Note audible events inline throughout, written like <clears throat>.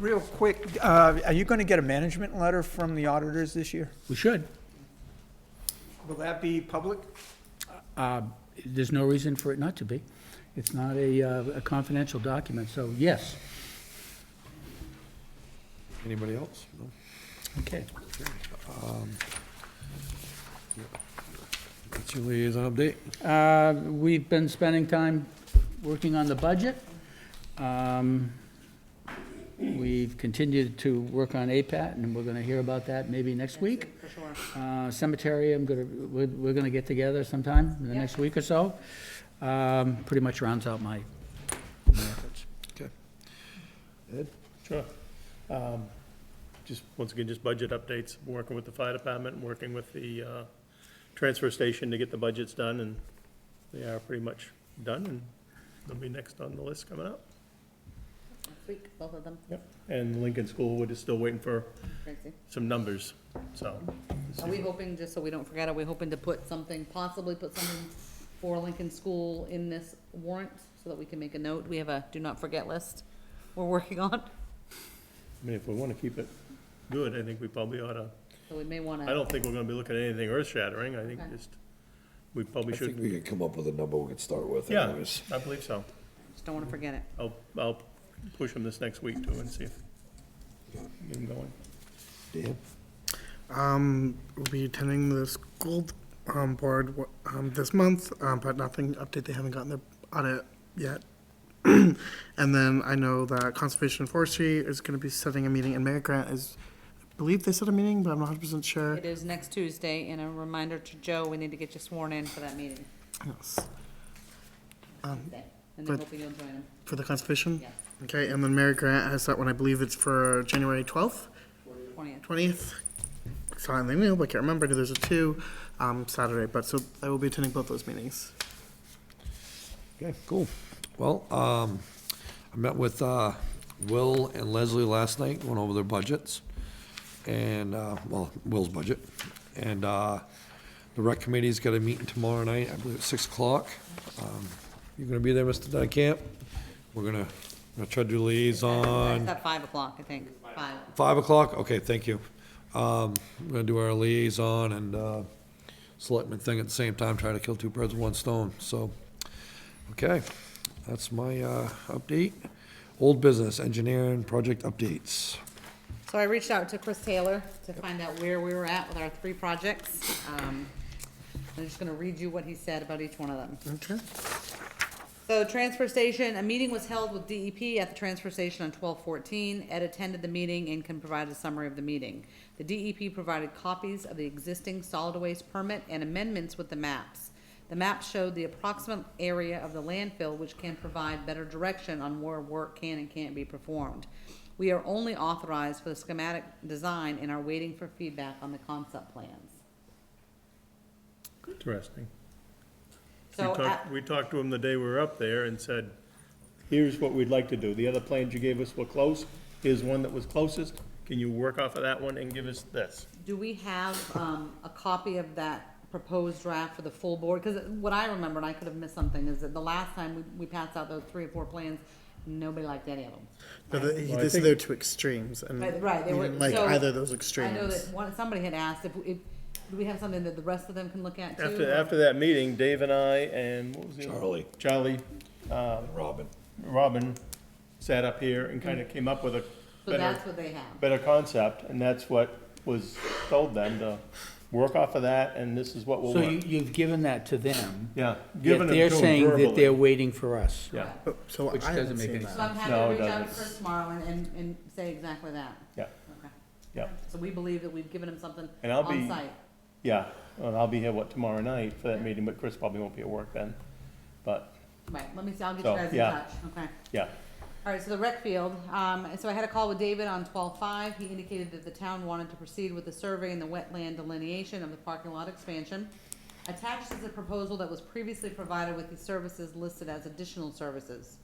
Real quick, uh, are you going to get a management letter from the auditors this year? We should. Will that be public? Uh, There's no reason for it not to be. It's not a uh, a confidential document, so yes. Anybody else? No? Okay. That's your liaison update. Uh, We've been spending time working on the budget. Um, We've continued to work on APAT, and we're going to hear about that maybe next week. For sure. Uh, Cemetery, I'm going to, we're we're going to get together sometime in the Yeah. next week or so. Um, Pretty much rounds out my my efforts. Sure. Um, Just, once again, just budget updates, working with the fire department, working with the uh, transfer station to get the budgets done, and they are pretty much done, and they'll be next on the list coming up. Next week, both of them, And Lincoln School, we're just still waiting for crazy. some numbers, so. Are we hoping, just so we don't forget, are we hoping to put something, possibly put something for Lincoln School in this warrant? So that we can make a note, we have a do not forget list we're working on, I mean, if we want to keep it good, I think we probably ought to, so we may wanna. I don't think we're going to be looking at anything earth shattering, I think Okay. just, we probably I think should, we can come up with a number we can start with yeah, anyways. I believe so. Just don't wanna forget it. I'll, I'll push them this next week too and see if, get them going. Dan? Um, will be attending the school um, board w- um, this month, um, but nothing update. They haven't gotten their audit yet. <clears throat> and then I know that Conservation Forestry is going to be setting a meeting, and Mayor Grant is, I believe they set a meeting, but I'm not 100% sure. It is next Tuesday, and a reminder to Joe, we need to get you sworn in for that meeting, Yes. Um, and then But- hopefully you'll join him, for the Conservation? Yes. Okay, and then Mayor Grant has that one, I believe it's for January 12th, twentieth. 20th. Saw it in the email, but can't remember. There's a two um, Saturday, but so I will be attending both those meetings. Okay, cool. Well, um, I met with, uh, Will and Leslie last night, went over their budgets. And, uh, well, Will's budget. And, uh, the rec committee's got a meeting tomorrow night, I believe at six o'clock. Um, You're gonna be there, Mr. Dunkamp? We're gonna, gonna try to do liaison. It's at five o'clock, I think, five. Five o'clock? Okay, thank you. Um, we're gonna do our liaison and, uh, selectmen thing at the same time, trying to kill two birds with one stone, so. Okay, that's my, uh, update. Old business, engineering, project updates. So I reached out to Chris Taylor to find out where we were at with our three projects. Um, I'm just gonna read you what he said about each one of them. Okay. So transfer station, a meeting was held with DEP at the transfer station on twelve fourteen. Ed attended the meeting and can provide a summary of the meeting. The DEP provided copies of the existing solid waste permit and amendments with the maps. The map showed the approximate area of the landfill, which can provide better direction on where work can and can't be performed. We are only authorized for the schematic design and are waiting for feedback on the concept plans. Interesting. We So, talked, at- we talked to him the day we were up there and said, here's what we'd like to do. The other plans you gave us were close. Here's one that was closest. Can you work off of that one and give us this? Do we have, um, a copy of that proposed draft for the full board? Cause what I remember, and I could have missed something, is that the last time we, we passed out those three or four plans, nobody liked any of them. No, the, he, Well, I they said think- they were two extremes, and Right, right, they he were- didn't like so- either of those I extremes. know that one, somebody had asked if, if, do we have something that the rest of them can look at too? After, after that meeting, Dave and I and what was the other? Charlie. Charlie, uh, Robin. Robin sat up here and kind of came up with a So better, that's what they have. better concept. And that's what was told them to work off of that and this is what we'll So you- work. you've given that to them. Yeah. Yet given they're it to 'em saying that verbally. they're waiting for us. Yeah, But- Oh, so Which I haven't doesn't make seen any that. So I'm happy No, to it reach out to doesn't. Chris tomorrow and, and, and say exactly that. yeah, Okay. yeah, So we believe that we've given him something And I'll be- on site. yeah. And I'll be here, what, tomorrow night for that meeting, but Chris probably won't be at work then. But, Right, let me see, I'll get you So, guys in yeah. touch, okay? yeah, All right, so the rec field, um, so I had a call with David on twelve-five, he indicated that the town wanted to proceed with the survey and the wetland delineation of the parking lot expansion. Attached is a proposal that was previously provided with the services listed as additional services.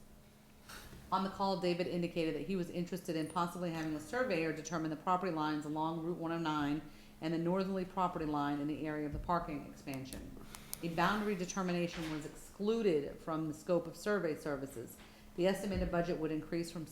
On the call, David indicated that he was interested in possibly having a surveyor determine the property lines along Route one oh nine and the northerly property line in the area of the parking expansion. A boundary determination was excluded from the scope of survey services. The estimated budget would increase from